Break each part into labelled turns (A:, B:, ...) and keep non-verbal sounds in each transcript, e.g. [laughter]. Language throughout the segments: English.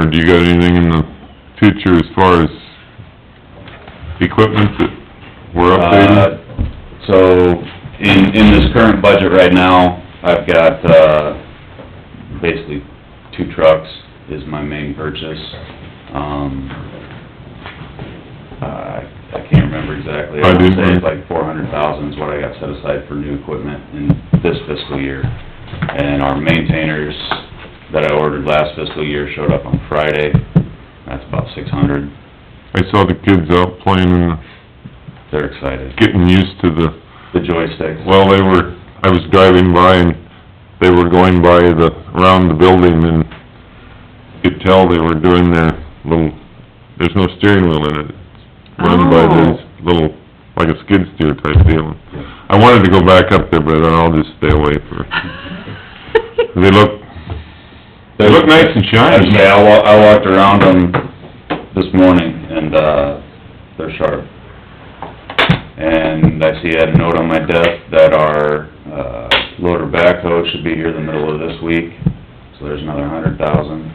A: Or do you got anything in the future as far as equipment that we're
B: Uh,
A: updating?
B: So, in, in this current budget right now, I've got, uh, basically two trucks is my main purchase. Um, I, I can't remember exactly.
A: I didn't
B: would say it's
A: remember.
B: like four hundred thousand is what I got set aside for new equipment in this fiscal year. And our maintainers that I ordered last fiscal year showed up on Friday. That's about six hundred.
A: I saw the kids out playing and
B: They're excited.
A: getting used to the
B: The joysticks.
A: Well, they were, I was driving by and they were going by the, around the building and you could tell they were doing their little, there's no steering wheel in it. Run by
C: Oh.
A: this little, like a skid steer type deal. I wanted to go back up there, but I'll just stay away for, they look, they look nice and
B: I'd
A: shiny.
B: say I wa- I walked around them this morning and, uh, they're sharp. And I see I had a note on my desk that our, uh, loader backhoe should be here the middle of this week, so there's another hundred thousand.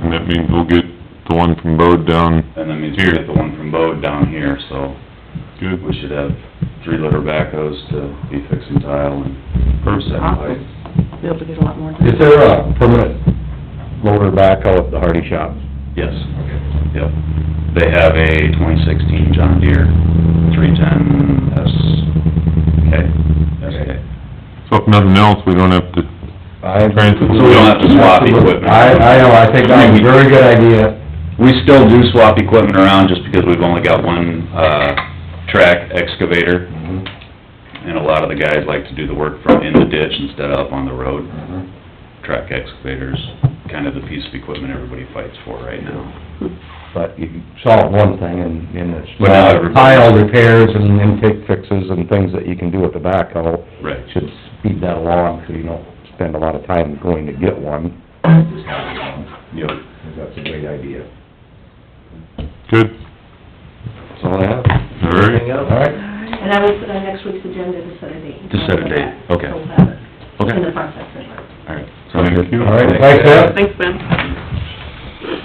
A: And that means we'll get the one from Bode down.
B: And that means we get the one from Bode down here, so
A: Good.
B: we should have three loader backhoes to be fixing tile and first set pipe.
C: Be able to get a lot more done.
D: Is there a uh, permanent loader backhoe at the Hardy shop?
B: Yes. Yep. They have a twenty sixteen John Deere three ten S, okay, SK.
A: So if nothing else, we don't have to,
D: I-
A: Transfer.
B: We don't have to swap equipment.
D: I, I know, I think that's a very good idea.
B: We still do swap equipment around just because we've only got one, uh, track excavator. And a lot of the guys like to do the work from in the ditch instead of up on the road. Track excavators, kind of the piece of equipment everybody fights for right now.
D: But you solve one thing and, and it's
B: But now
D: not
B: everybody-
D: pile repairs and intake fixes and things that you can do with the backhoe.
B: Right.
D: Should speed that along so you don't spend a lot of time going to get one.
B: Yep.
D: That's a great idea.
A: good,
D: That's all I have.
A: all right?
D: All right.
C: And I will put on next week's agenda to set a date.
B: To set a date, okay.
C: So we'll have it
B: Okay.
C: in the process anyway.
B: All right.
A: Thank you.
D: All right, thanks, Ed.
C: Thanks, Ben.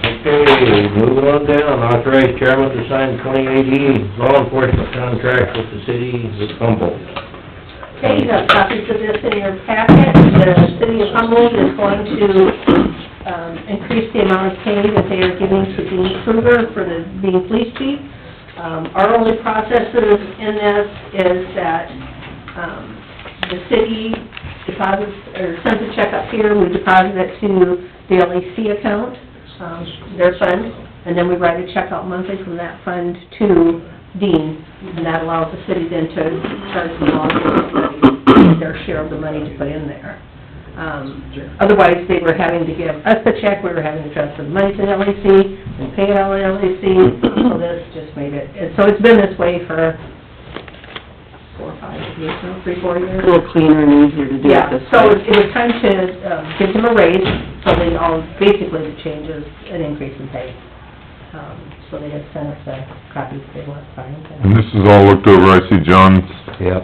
E: Okay, moving on down, authorize chairman to sign 2018 law enforcement contract with the city of Humboldt.
C: Okay, you have copies of this in your packet. The city of Humboldt is going to, um, increase the amount of pay that they are giving to Dean Kruger for the, being police chief. Um, our only processes in this is that, um, the city deposits, or sends a check up here, we deposit it to the LEC account, um, their fund, and then we write a check out monthly from that fund to Dean, and that allows the city then to charge the law enforcement their share of the money to put in there. Um, otherwise, they were having to give us the check, we were having to transfer the money to the LEC, and pay it all to LEC, so this just made it, and so it's been this way for four, or five years, now, three, four years.
F: A little cleaner and easier to do
C: Yeah,
F: it this way. [coughs]
C: so it it was time to um, give them a raise, so they all, basically the changes, an increase in pay. Um, So they had sent us the copies they want signed.
A: And this is all looked over, I see John's
D: Yep.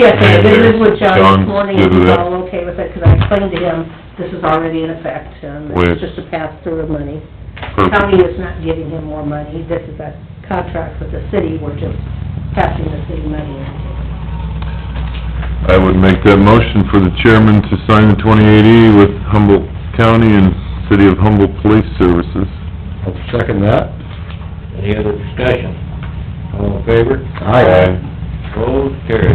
C: Yes, I visited with
A: John
C: John this morning,
A: did
C: and he's
A: that.
C: all okay with it, because I explained to him, this is already in effect, um,
A: With-
C: it's just a pass-through of money.
A: perfect.
C: County is not giving him more money, this is a contract with the city, we're just passing the city money.
A: I would make that motion for the chairman to sign the 2080 with Humboldt County and City of Humboldt Police Services.
D: I'll second that.
E: Any other discussion? All in favor?
D: Aye.
E: Opposed, carried.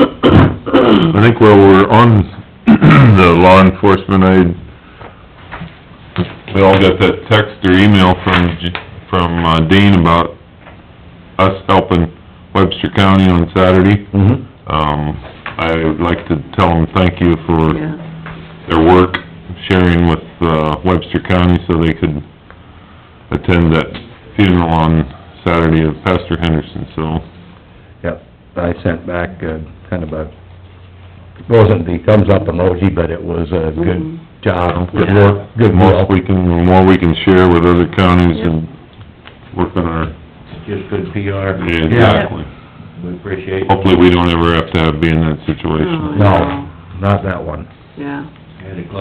A: I think while we're on the law enforcement, I, we all got that text or email from, J- from uh, Dean about us helping Webster County on Saturday.
D: Mm-hmm.
A: Um, I would like to tell him thank you for
F: Yeah,
A: their work, sharing with uh, Webster County so they could attend that funeral on Saturday of Pastor Henderson, so,
D: Yep, I sent back, uh, kind of a, wasn't the thumbs up emoji, but it was a good job, good work,
A: the
D: good
A: most
D: work.
A: we can, the more we can share with other counties and work on our...
E: Just good PR.
A: Exactly.
E: We appreciate it.
A: Hopefully, we don't ever have to have- be in that situation.
F: No.
D: No, not that one.
F: yeah.
E: Had it closed